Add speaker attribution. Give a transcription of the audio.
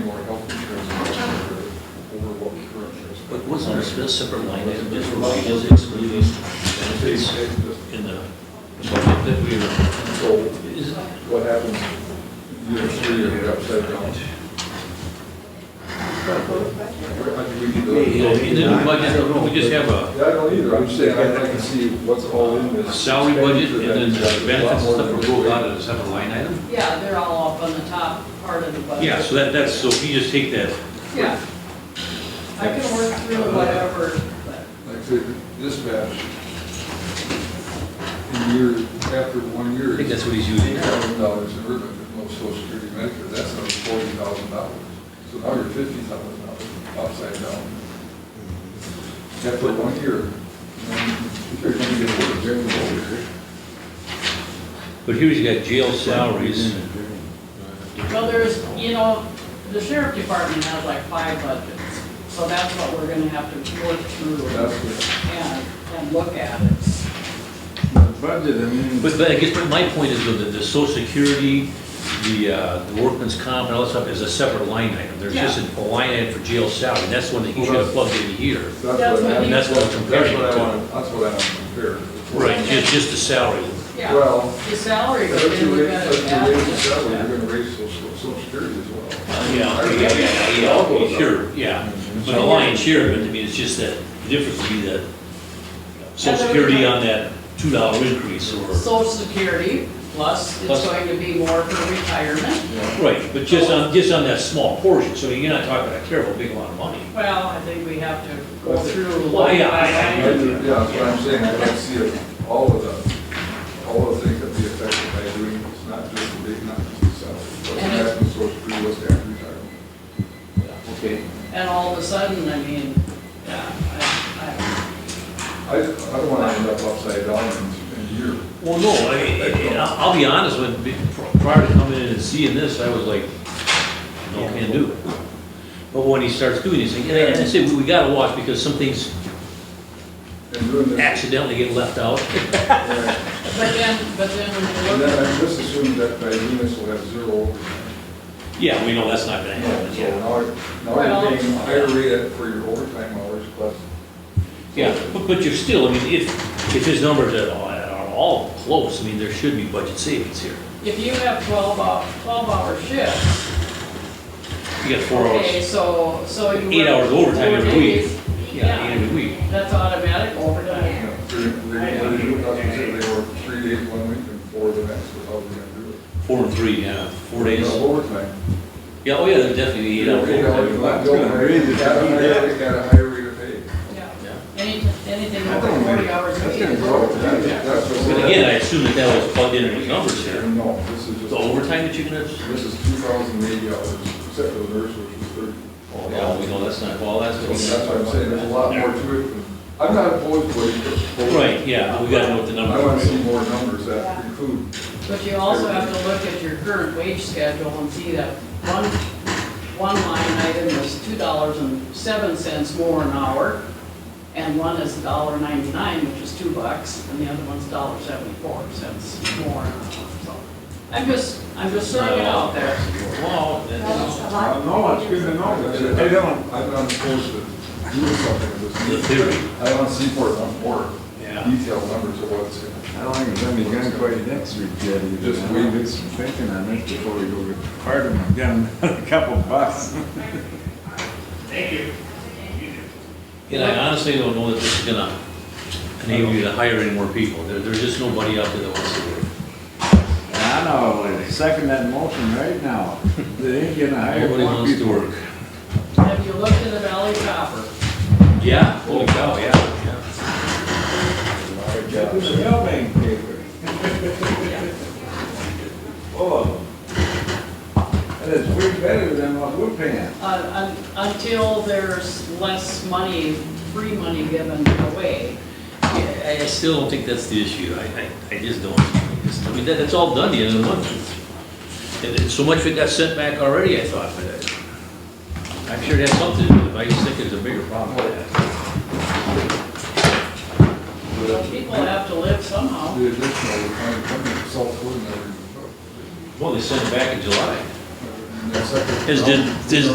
Speaker 1: those on a sp- separate line item, just for what is excluding benefits in the budget that we are,
Speaker 2: So
Speaker 1: is,
Speaker 2: what happens year three if you're upside down? I think we need
Speaker 1: you know,
Speaker 2: to-
Speaker 1: in the new budget, we just have a
Speaker 2: Yeah, I don't either, I'm just saying, I I can see what's all in this.
Speaker 1: salary budget and then
Speaker 2: Expenditure that's
Speaker 1: the benefits
Speaker 2: a lot
Speaker 1: and stuff
Speaker 2: more
Speaker 1: are
Speaker 2: than-
Speaker 1: rolled out as a separate line item?
Speaker 3: Yeah, they're all up on the top part of the budget.
Speaker 1: Yeah, so that, that's, so if you just take that,
Speaker 3: Yeah. I can work
Speaker 1: Uh,
Speaker 3: through whatever, but,
Speaker 2: Like the dispatch, in year, after one
Speaker 1: I
Speaker 2: year,
Speaker 1: think
Speaker 2: it's
Speaker 1: that's what he's
Speaker 2: eight
Speaker 1: using.
Speaker 2: thousand dollars in urban, but no social security Medicare, that's another forty thousand dollars. So now you're fifty thousand dollars upside down. After one year, and you're gonna get a general over
Speaker 1: But here he's got jail salaries,
Speaker 3: well, there's, you know, the sheriff department has like five budgets, so that's what we're gonna have to work through
Speaker 2: That's what,
Speaker 3: and, and look at it.
Speaker 4: Budget, I mean,
Speaker 1: but, but I guess my point is though that the social security, the, uh, the workman's comp and all that stuff is a separate line item. There's just a a line item for jail salary, that's one that he should have plugged in here.
Speaker 2: that's what I,
Speaker 1: And that's what I'm
Speaker 2: that's
Speaker 1: comparing
Speaker 2: what I
Speaker 1: it
Speaker 2: want, that's what I want to compare.
Speaker 1: to. Right, just, just the salary.
Speaker 3: Yeah,
Speaker 2: Well,
Speaker 3: the salary,
Speaker 2: if
Speaker 3: then
Speaker 2: you
Speaker 3: we
Speaker 2: raise,
Speaker 3: gotta
Speaker 2: if you raise the
Speaker 3: add.
Speaker 2: salary, you're gonna raise social, social security as well.
Speaker 1: Yeah, yeah, yeah, yeah, yeah, sure, yeah. But the lion's share of it, I mean, it's just that the difference would be that social security on that two dollar increase or,
Speaker 3: Social security, plus it's
Speaker 1: Plus-
Speaker 3: going to be more for retirement.
Speaker 1: right, but just on, just on that small portion, so you're not talking a terrible big amount of money.
Speaker 3: Well, I think we have to go through.
Speaker 1: Well, yeah, I- I-
Speaker 2: Yeah, that's what I'm saying, I don't see it, all of the, all of the things that be affected by doing, it's not just the big, not just the salary. What's
Speaker 3: And it-
Speaker 2: happening, so it's pretty much after retirement.
Speaker 4: okay,
Speaker 3: And all of a sudden, I mean, yeah, I,
Speaker 2: I, I don't wanna end up upside down in, in a year.
Speaker 1: Well, no, I mean, and I'll I'll be honest, when, prior to coming in and seeing this, I was like, no, can't do it. But when he starts doing these things, and I and I say, we we gotta watch because some things
Speaker 2: And doing this, and
Speaker 1: accidentally get left out.
Speaker 2: I-
Speaker 3: I, but then, but then when
Speaker 2: and
Speaker 3: you look
Speaker 2: then I just assumed that by doing this, we'll have zero.
Speaker 1: Yeah, we know that's not gonna happen,
Speaker 2: So
Speaker 1: yeah.
Speaker 2: now, you're- now
Speaker 3: Well-
Speaker 2: you're paying a higher rate for your overtime hours plus.
Speaker 1: Yeah, but, but you're still, I mean, if, if his numbers at all, are all close, I mean, there should be budget savings here.
Speaker 3: If you have twelve hour, twelve hour shifts,
Speaker 1: You got four
Speaker 3: okay,
Speaker 1: hours,
Speaker 3: so, so you.
Speaker 1: eight
Speaker 3: work
Speaker 1: hours overtime
Speaker 3: four
Speaker 1: every week.
Speaker 3: days,
Speaker 1: Yeah, eight every week.
Speaker 3: That's automatic overtime.
Speaker 2: You know, three, they, they, that's what they were three days one week and four the next, or how they gonna do it.
Speaker 1: Four and three, yeah, four days.
Speaker 2: No Overtime.
Speaker 1: Yeah, oh yeah, there's definitely eight hours overtime.
Speaker 3: Yeah.
Speaker 1: Yeah.
Speaker 3: Any, anything over forty hours a
Speaker 4: That's
Speaker 3: week.
Speaker 4: gonna grow.
Speaker 3: is
Speaker 1: But again, I assume that that was plugged in in his numbers here.
Speaker 2: No, this is just.
Speaker 1: The overtime that you're gonna,
Speaker 2: This is two thousand eighty hours, except for the nurse, which is thirty.
Speaker 1: oh, yeah, we know that's not, well, that's.
Speaker 2: So That's what I'm saying, there's a lot more to it. than- I'm not opposed to it.
Speaker 1: Right, yeah, but we gotta know what the number
Speaker 2: I want to
Speaker 1: is.
Speaker 2: see more numbers that include.
Speaker 3: But you also have to look at your current wage schedule and see that one, one line item is two dollars and seven cents more an hour, and one is $1.99, which is two bucks, and the other one's $1.74 more an hour, so. I'm just, I'm just throwing it out there.
Speaker 1: Well, that's-
Speaker 4: no, it's good to know. Hey, Dylan,
Speaker 2: I'm not opposed to doing something with
Speaker 1: the
Speaker 2: this.
Speaker 1: theory,
Speaker 2: I want to see more, more
Speaker 1: yeah.
Speaker 2: detailed numbers of what it's going to
Speaker 4: I don't think it's gonna be done quite next week yet either.
Speaker 2: Just
Speaker 4: I
Speaker 2: wait.
Speaker 4: wanna do some thinking on this before we go get part of them, get 'em a couple bucks.
Speaker 1: And I honestly don't know that this is gonna enable you to hire any more people. There, there's just nobody out there that wants to work.
Speaker 4: I know, they second that motion right now. They ain't gonna hire
Speaker 1: Nobody
Speaker 4: one
Speaker 1: wants to
Speaker 4: people.
Speaker 1: work.
Speaker 3: Have you looked at the Valley Copper?
Speaker 1: Yeah, holy cow, yeah.
Speaker 4: Check this Milbank paper. Oh. That is way better than what we're paying.
Speaker 3: Uh, un- Until there's less money, free money given away.
Speaker 1: I, I still don't think that's the issue. I, I, I just don't. I just- I mean, that, that's all done the end of the month. And it's so much of it got sent back already, I thought, but I- I'm sure it has something to do with it. I just think there's a bigger problem with that.
Speaker 3: So people have to live somehow.
Speaker 2: The additional, we're trying to come in, South Dakota, never even
Speaker 1: Well, they sent it back in July.
Speaker 2: took. And that's like-
Speaker 1: As did, as